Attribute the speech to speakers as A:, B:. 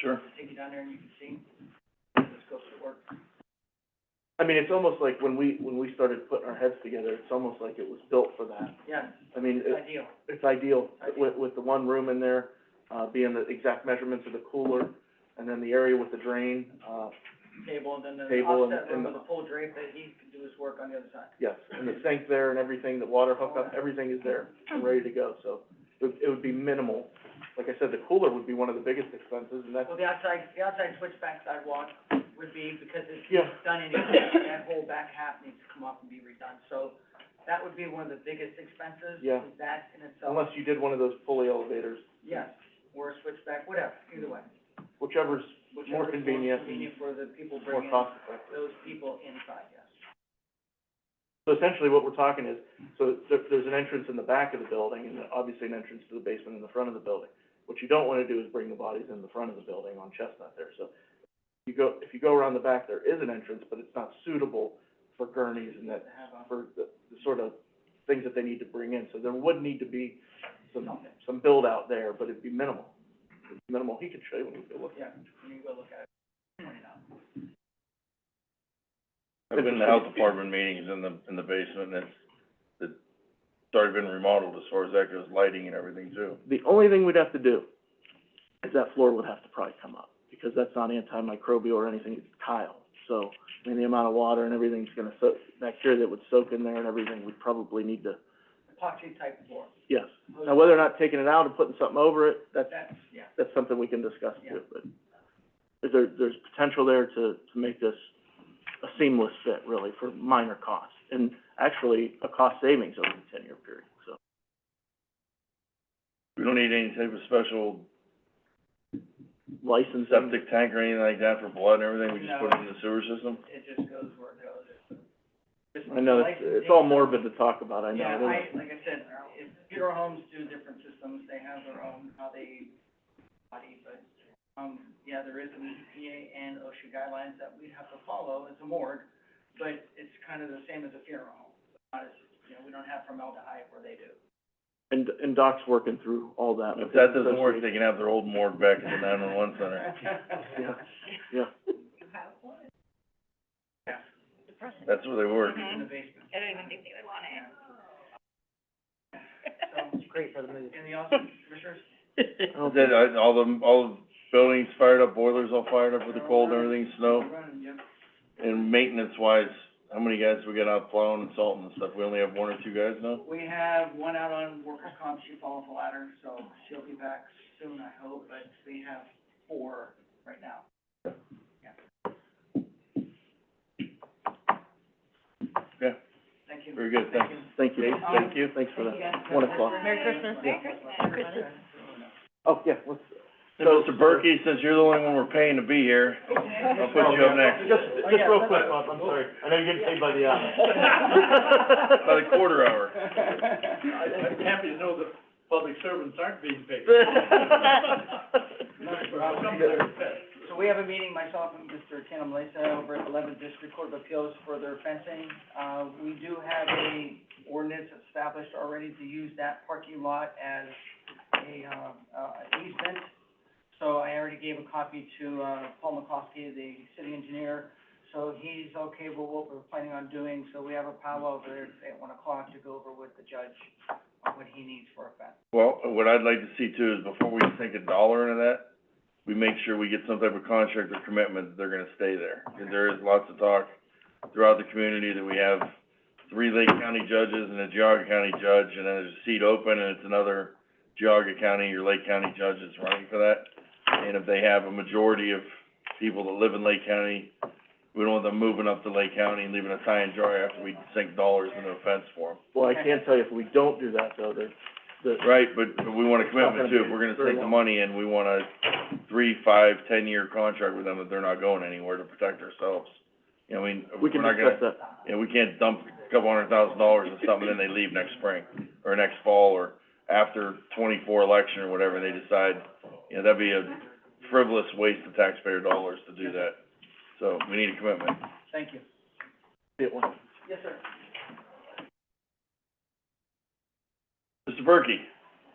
A: Sure.
B: I'll Take you down there and you can see, just go to work.
A: I mean, it's almost like when we, when we started putting our heads together, it's almost like it was built for that.
B: Yeah,
A: I mean,
B: it's
A: it,
B: ideal.
A: it's ideal with, with the one room in there, uh, being the exact measurements of the cooler, and then the area with the drain, uh,
B: Table and then the
A: Table and-
B: offset
A: and
B: room with
A: the-
B: a full drape that he can do his work on the other side.
A: yes, and the sink there and everything, the water hookup, everything is there and ready to go, so it, would- it would be minimal. Like I said, the cooler would be one of the biggest expenses, and that's,
B: Well, the outside, the outside switchback sidewalk would be, because it's
A: yeah,
B: done anyway, that whole back half needs to come up and be redone. So that would be one of the biggest expenses.
A: Yeah.
B: is That in itself,
A: unless you did one of those pulley elevators,
B: yes, or a switchback, whatever, either way.
A: whichever's more
B: Whichever is
A: convenient and
B: Convenient for the people
A: more
B: bringing
A: cost effective.
B: those people inside, yes.
A: So essentially what we're talking is, so there, there's an entrance in the back of the building and obviously an entrance to the basement in the front of the building. What you don't wanna do is bring the bodies in the front of the building on Chestnut there, so you go, if you go around the back, there is an entrance, but it's not suitable for gurneys and that,
B: To have a,
A: for the, the sort of things that they need to bring in. So there would need to be some,
B: something,
A: some build out there, but it'd be minimal. It'd be Minimal, he could show you when you go look.
B: yeah, you go look at it, point it out.
C: I've been in the health department meetings in the, in the basement, and it's, it's already been remodeled as far as that goes, lighting and everything too.
A: The only thing we'd have to do is that floor would have to probably come up, because that's not antimicrobial or anything, it's tile. So, I mean, the amount of water and everything's gonna soak, bacteria that would soak in there and everything, we'd probably need to,
B: Epoxy type floor.
A: yes. Now, whether or not taking it out and putting something over it, that's,
B: That's, yeah,
A: that's something we can discuss too, but is there, there's potential there to, to make this a seamless fit, really, for minor costs, and actually, a cost savings over the ten-year period, so.
C: We don't need any type of special
A: Licensing.
C: septic tank or anything like that for blood and everything, we just put it in the sewer system?
B: it just goes where it goes. Just
A: I know, it's, it's all morbid to talk about, I know,
B: Yeah,
A: it is.
B: I, like I said, uh, if funeral homes do different systems, they have their own, how they body, but, um, yeah, there is an EPA and OSHA guidelines that we have to follow as a morgue, but it's kind of the same as a funeral home. Not as, you know, we don't have formaldehyde where they do.
A: And, and Doc's working through all that.
C: If
A: with
C: that
A: his
C: doesn't work,
A: associate.
C: they can have their old morgue back at the nine-one-one center.
A: Yeah, yeah.
B: Yeah,
C: That's where they work.
B: in the basement.
D: I don't even think they would want it.
B: So,
E: great for the movie.
B: and the office, commissioners,
A: I don't
C: Then,
A: think-
C: uh, all the, all the buildings fired up, boilers all fired up with the cold and everything, snow.
B: I'm running, Jim.
C: And maintenance-wise, how many guys we got out plowing and salting and stuff? We only have one or two guys now?
B: We have one out on workers' comp, she fell off a ladder, so she'll be back soon, I hope, but we have four right now.
C: Yeah.
B: Thank you.
C: Very good, thank you.
A: Thank you.
B: Um, Thank
A: you. Thanks for that.
B: Thank you.
A: One o'clock.
D: Merry Christmas. Merry Christmas, everybody.
A: Oh, yeah, let's.
C: So, Mr. Berkey, since you're the only one we're paying to be here, I'll put you up next.
A: Just,
B: Oh,
A: just
B: yeah,
A: real
B: that's-
A: quick, Bob, I'm sorry. I know you're getting paid by the hour.
C: By the quarter hour.
B: I'm happy to know that public servants aren't being paid. So we have a meeting, myself and Mr. Tatum Lisa over at Eleventh District Court of Appeals for their fencing. Uh, we do have a ordinance established already to use that parking lot as a, uh, uh, an easement. So I already gave a copy to, uh, Paul McCoskey, the city engineer. So he's okay with what we're planning on doing, so we have a powwow over there at one o'clock to go over with the judge on what he needs for a fence.
C: Well, what I'd like to see too is before we sink a dollar into that, we make sure we get some type of contract or commitment that they're gonna stay there. 'Cause there is lots of talk throughout the community that we have three Lake County judges and a Geauga County judge, and then there's a seat open, and it's another Geauga County or Lake County judges running for that. And if they have a majority of people that live in Lake County, we don't want them moving up to Lake County and leaving us high and dry after we sink dollars into a fence for them.
A: Well, I can tell you, if we don't do that though, there's, the,
C: Right, but, but we want a commitment too, if we're gonna take the money and we want a three, five, ten-year contract with them, that they're not going anywhere to protect ourselves. You know, I mean,
A: we
C: we're
A: can
C: not
A: discuss
C: gonna,
A: that.
C: you know, we can't dump a couple hundred thousand dollars in something and they leave next spring, or next fall, or after twenty-four election or whatever, they decide, you know, that'd be a frivolous waste of taxpayer dollars to do that. So, we need a commitment.
B: Thank you.
A: See it once.
B: Yes, sir.
C: Mr. Berkey?